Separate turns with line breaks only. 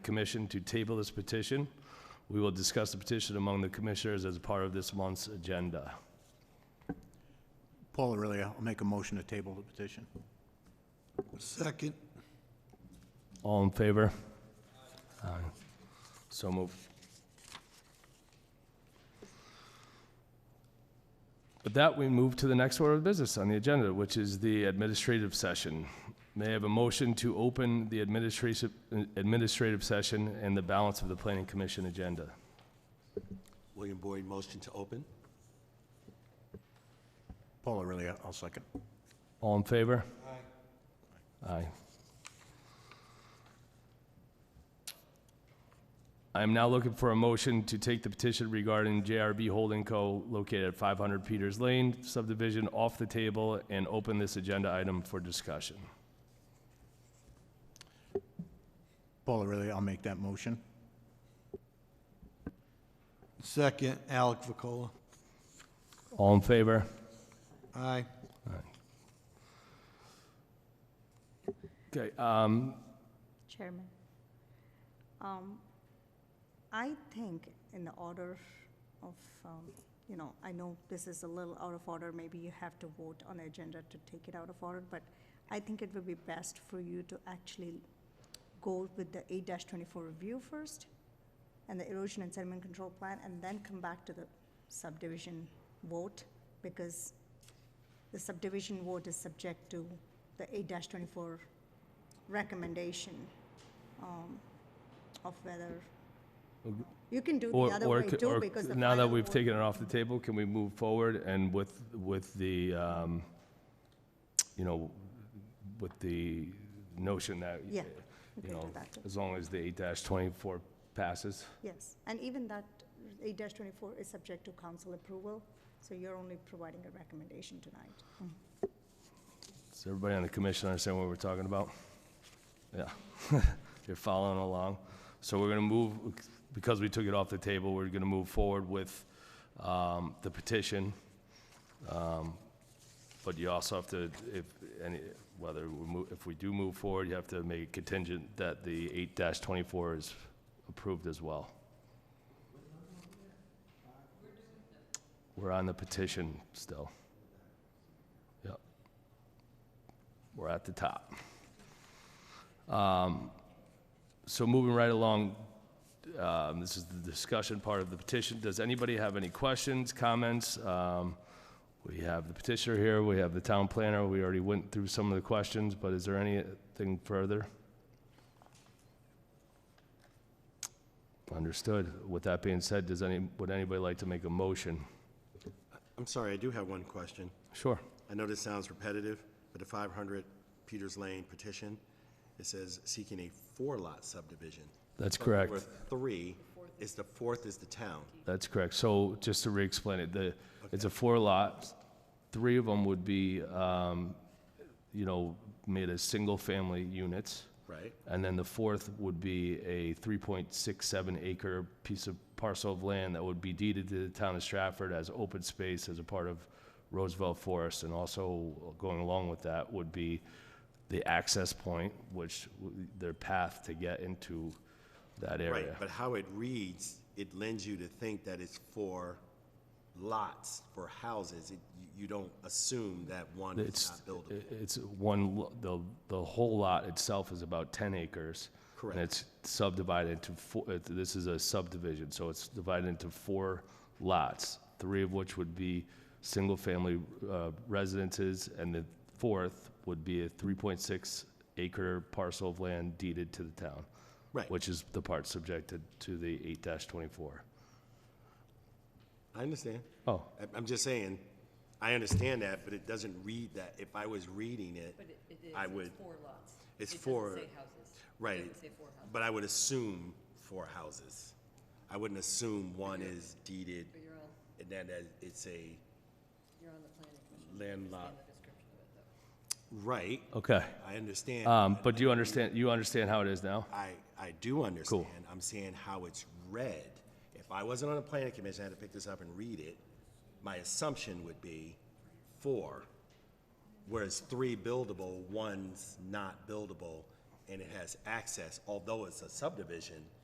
commission to table this petition. We will discuss the petition among the commissioners as part of this month's agenda.
Paul Aurelia, I'll make a motion to table the petition.
Second.
All in favor? Aye. So moved. With that, we move to the next order of business on the agenda, which is the administrative session. May I have a motion to open the administrative, administrative session and the balance of the planning commission agenda?
William Boyd, motion to open?
Paul Aurelia, I'll second.
All in favor? Aye. Aye. I am now looking for a motion to take the petition regarding JRB Holding Co. located at 500 Peters Lane subdivision off the table and open this agenda item for discussion.
Paul Aurelia, I'll make that motion.
Second, Alec Vacola.
All in favor?
Aye.
Okay, um,
Chairman, um, I think in the order of, um, you know, I know this is a little out of order, maybe you have to vote on the agenda to take it out of order, but I think it would be best for you to actually go with the eight twenty-four review first, and the erosion and sediment control plan, and then come back to the subdivision vote, because the subdivision vote is subject to the eight twenty-four recommendation um, of whether, you can do it the
or,
other
or
way
c-
too,
or
because the
now that
final
we've
vote-
taken it off the table, can we move forward and with, with the, um, you know, with the notion that,
Yeah, we
you
can
know,
do that too.
as long as the eight twenty-four passes.
Yes, and even that eight twenty-four is subject to council approval, so you're only providing a recommendation tonight.
Does everybody on the commission understand what we're talking about? Yeah, you're following along. So we're gonna move, because we took it off the table, we're gonna move forward with, um, the petition. Um, But you also have to, if, any, whether, we mo- if we do move forward, you have to make it contingent that the eight twenty-four is approved as well. We're on the petition still. Yep. We're at the top. Um, So moving right along, um, this is the discussion part of the petition. Does anybody have any questions, comments? Um, We have the petitioner here, we have the town planner, we already went through some of the questions, but is there anything further? Understood. With that being said, does any, would anybody like to make a motion?
I'm sorry, I do have one question.
Sure.
I know this sounds repetitive, but the 500 Peters Lane petition, it says seeking a four-lot subdivision.
That's
But
correct.
There were three, is the fourth is the town.
That's correct. So just to re-explain it, the, it's a four lot. Three of them would be, um, you know, made as single-family units.
Right.
And then the fourth would be a 3.67 acre piece of parcel of land that would be deeded to the town of Stratford as open space as a part of Roosevelt Forest. And also going along with that would be the access point, which w- their path to get into that
Right,
area.
but how it reads, it lends you to think that it's for lots, for houses. It- you- You don't assume that one is
It's,
not buildable.
i- it's one, lo- the, the whole lot itself is about 10 acres.
Correct.
And it's subdivided into four, it- this is a subdivision, so it's divided into four lots, three of which would be single-family uh, residences, and the fourth would be a 3.6 acre parcel of land deeded to the town.
Right.
Which is the part subjected to the 8-24.
I understand.
Oh,
I- I'm just saying, I understand that, but it doesn't read that. If I was reading it,
But it- it is,
I
it's
would,
four lots.
it's
It doesn't
four-
say houses.
Right.
It doesn't say four houses.
but I would assume four houses. I wouldn't assume one is deeded
But you're on,
and then that it's a
you're on the planning commission.
landlocked.
The description of it, though.
Right,
okay.
I understand.
Um, But do you understand, you understand how it is now?
I, I do understand. I'm saying how it's read. If I wasn't on the planning commission, I had to pick this up and read it, my assumption would be four, whereas three buildable, one's not buildable, and it has access, although it's a subdivision,